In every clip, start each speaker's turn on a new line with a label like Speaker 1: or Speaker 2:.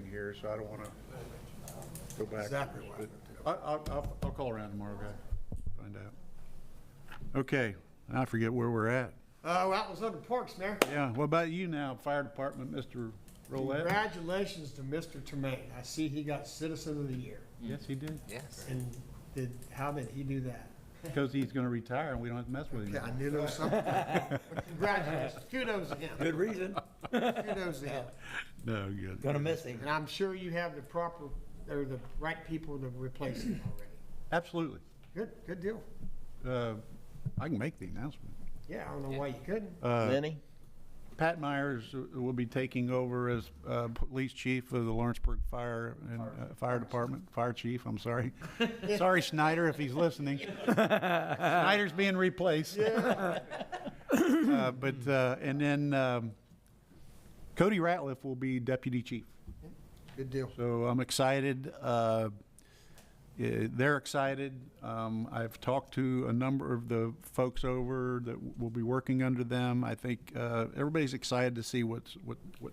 Speaker 1: here, so I don't want to go back.
Speaker 2: Exactly what happened.
Speaker 1: I, I'll, I'll, I'll call around tomorrow, guy, find out. Okay, I forget where we're at.
Speaker 2: Uh, well, that was under Parks, Mayor.
Speaker 1: Yeah, what about you now, Fire Department, Mr. Rolette?
Speaker 2: Congratulations to Mr. Tremaine. I see he got Citizen of the Year.
Speaker 1: Yes, he did,
Speaker 3: Yes.
Speaker 2: And did, how did he do that?
Speaker 1: because he's going to retire and we don't have to mess with him.
Speaker 2: Yeah, I knew there was something. Congratulations. Kudos to him.
Speaker 4: Good reason.
Speaker 2: Kudos to him.
Speaker 1: No, good.
Speaker 4: Gonna miss him.
Speaker 2: And I'm sure you have the proper, or the right people to replace him already.
Speaker 1: Absolutely.
Speaker 2: Good, good deal.
Speaker 1: Uh, I can make the announcement.
Speaker 2: Yeah, I don't know why you couldn't.
Speaker 1: Uh,
Speaker 4: Lenny?
Speaker 1: Pat Myers uh, will be taking over as uh, police chief of the Lawrenceburg Fire and uh, Fire Department, Fire Chief, I'm sorry. Sorry, Snyder, if he's listening. Snyder's being replaced. Uh, But, uh, and then um, Cody Ratliff will be deputy chief.
Speaker 2: Good deal.
Speaker 1: So I'm excited. uh, eh, They're excited. Um, I've talked to a number of the folks over that will be working under them. I think uh, everybody's excited to see what's, what, what,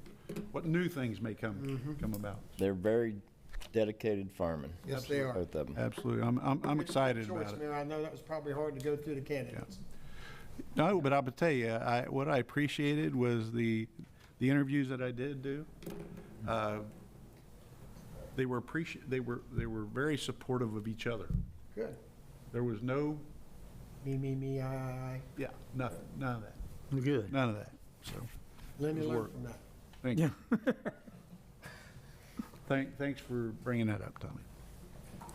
Speaker 1: what new things may come, come about.
Speaker 5: They're very dedicated firemen.
Speaker 2: Yes, they are.
Speaker 5: Both of them.
Speaker 1: Absolutely. I'm, I'm, I'm excited
Speaker 2: Choice,
Speaker 1: about it.
Speaker 2: Mayor. I know that was probably hard to go through the candidates.
Speaker 1: No, but I'll tell you, I, what I appreciated was the, the interviews that I did do. Uh, They were appreci, they were, they were very supportive of each other.
Speaker 2: Good.
Speaker 1: There was no
Speaker 2: Me, me, me, I, I,
Speaker 1: Yeah, nothing, none of that,
Speaker 4: Good.
Speaker 1: none of that, so,
Speaker 2: I. Let me
Speaker 1: His
Speaker 2: learn
Speaker 1: work.
Speaker 2: from that.
Speaker 1: thank you. Thank, thanks for bringing that up, Tommy.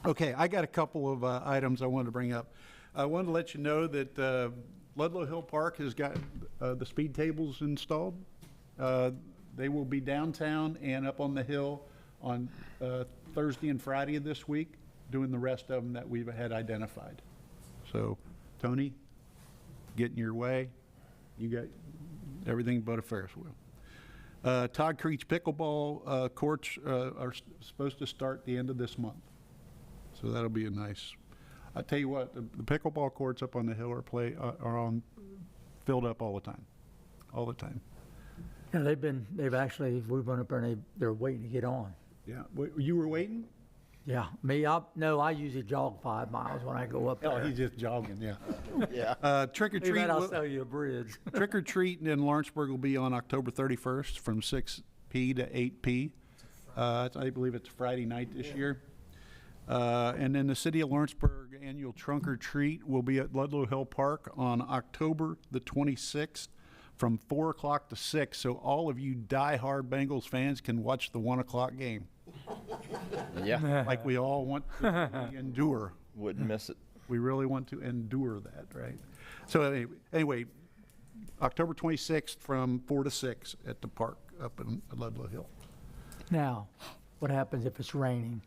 Speaker 1: Okay, I got a couple of uh, items I wanted to bring up. I wanted to let you know that uh, Ludlow Hill Park has got uh, the speed tables installed. Uh, They will be downtown and up on the hill on uh, Thursday and Friday of this week, doing the rest of them that we've had identified. So, Tony, get in your way. You got everything but a Ferris wheel. Uh, Todd Creech pickleball uh, courts uh, are s- supposed to start the end of this month. So that'll be a nice, I tell you what, the the pickleball courts up on the hill are play, are are on, filled up all the time, all the time.
Speaker 6: Yeah, they've been, they've actually, we went up there and they, they're waiting to get on.
Speaker 1: Yeah, Wa- you were waiting?
Speaker 6: Yeah, me, I, no, I usually jog five miles when I go up
Speaker 1: Oh,
Speaker 6: there.
Speaker 1: he's just jogging, yeah.
Speaker 5: Yeah.
Speaker 1: Uh, Trick or
Speaker 6: Too
Speaker 1: treat.
Speaker 6: bad I'll
Speaker 1: will-
Speaker 6: sell you a bridge.
Speaker 1: Trick or treat in Lawrenceburg will be on October 31st from 6P to 8P. Uh, it's- I believe it's Friday night this year. Uh, And then the City of Lawrenceburg Annual Trunk or Treat will be at Ludlow Hill Park on October the 26th from 4 o'clock to 6. So all of you diehard Bengals fans can watch the 1 o'clock game,
Speaker 5: Yeah.
Speaker 1: like we all want to endure.
Speaker 5: Wouldn't miss it.
Speaker 1: We really want to endure that, right? So anyway- anyway, October 26th from 4 to 6 at the park up in Ludlow Hill.
Speaker 6: Now, what happens if it's raining?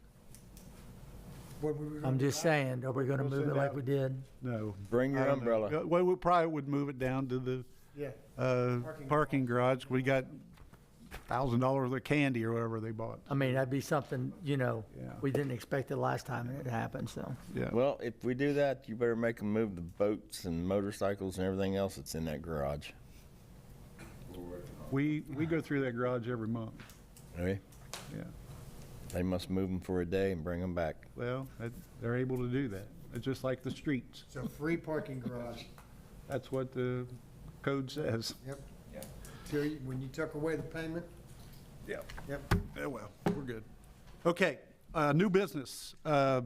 Speaker 2: What we were gonna
Speaker 6: I'm
Speaker 2: do
Speaker 6: just
Speaker 2: about
Speaker 6: saying, are we gonna
Speaker 1: We'll
Speaker 6: move
Speaker 1: send
Speaker 6: it like
Speaker 1: out-
Speaker 6: we did?
Speaker 1: No.
Speaker 5: Bring your
Speaker 1: I don't know.
Speaker 5: umbrella.
Speaker 1: Uh, Well, we probably would move it down to the
Speaker 2: it? Yeah.
Speaker 1: uh,
Speaker 2: Parking
Speaker 1: parking garage. We got $1,000 worth of candy or whatever they bought.
Speaker 6: I mean, that'd be something, you know,
Speaker 1: Yeah.
Speaker 6: we didn't expect it last time and it happened, so.
Speaker 1: Yeah.
Speaker 5: Well, if we do that, you better make them move the boats and motorcycles and everything else that's in that garage.
Speaker 1: We, we go through that garage every month.
Speaker 5: Okay?
Speaker 1: Yeah.
Speaker 5: They must move them for a day and bring them back.
Speaker 1: Well, that- they're able to do that. It's just like the streets.
Speaker 2: It's a free parking garage.
Speaker 1: That's what the code says.
Speaker 2: Yep. Till you, when you took away the payment,
Speaker 1: Yeah.
Speaker 2: yep.
Speaker 1: Oh, well, we're good. Okay, uh, new business. Uh,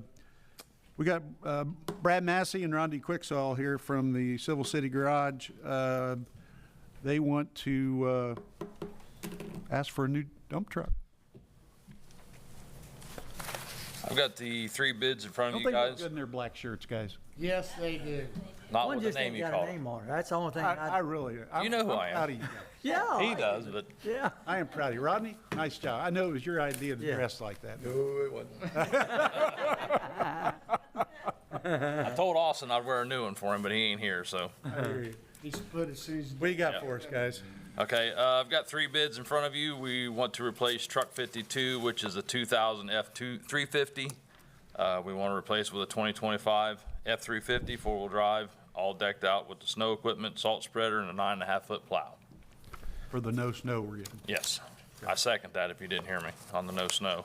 Speaker 1: We got uh, Brad Massey and Rodney Quicksall here from the Civil City Garage. Uh, They want to uh, ask for a new dump truck.
Speaker 7: I've got the three bids in front
Speaker 1: Don't
Speaker 7: of
Speaker 1: they
Speaker 7: you
Speaker 1: look
Speaker 7: guys,
Speaker 1: good in their black shirts, guys?
Speaker 2: Yes, they do.
Speaker 7: not
Speaker 6: One
Speaker 7: with the
Speaker 6: just
Speaker 7: name
Speaker 6: ain't
Speaker 7: you
Speaker 6: got
Speaker 7: called.
Speaker 6: a name on it, that's the only thing
Speaker 1: I I
Speaker 6: I,
Speaker 1: really, I'm
Speaker 7: You know who
Speaker 1: I'm
Speaker 7: I am.
Speaker 1: proud of you guys.
Speaker 6: yeah.
Speaker 7: He
Speaker 6: I-
Speaker 7: does, but
Speaker 6: Yeah.
Speaker 1: I am proud of you. Rodney, nice job. I know it was your idea to
Speaker 6: Yeah.
Speaker 1: dress like that.
Speaker 7: I told Austin I'd wear a new one for him, but he ain't here, so.
Speaker 2: He split as soon as.
Speaker 1: What you got for us, guys?
Speaker 7: Okay, uh, I've got three bids in front of you. We want to replace truck fifty-two, which is a two thousand F two, three fifty. Uh, we want to replace with a twenty twenty-five F three fifty, four-wheel drive, all decked out with the snow equipment, salt spreader, and a nine and a half foot plow.
Speaker 1: For the no snow we're getting.
Speaker 7: Yes. I second that if you didn't hear me on the no snow.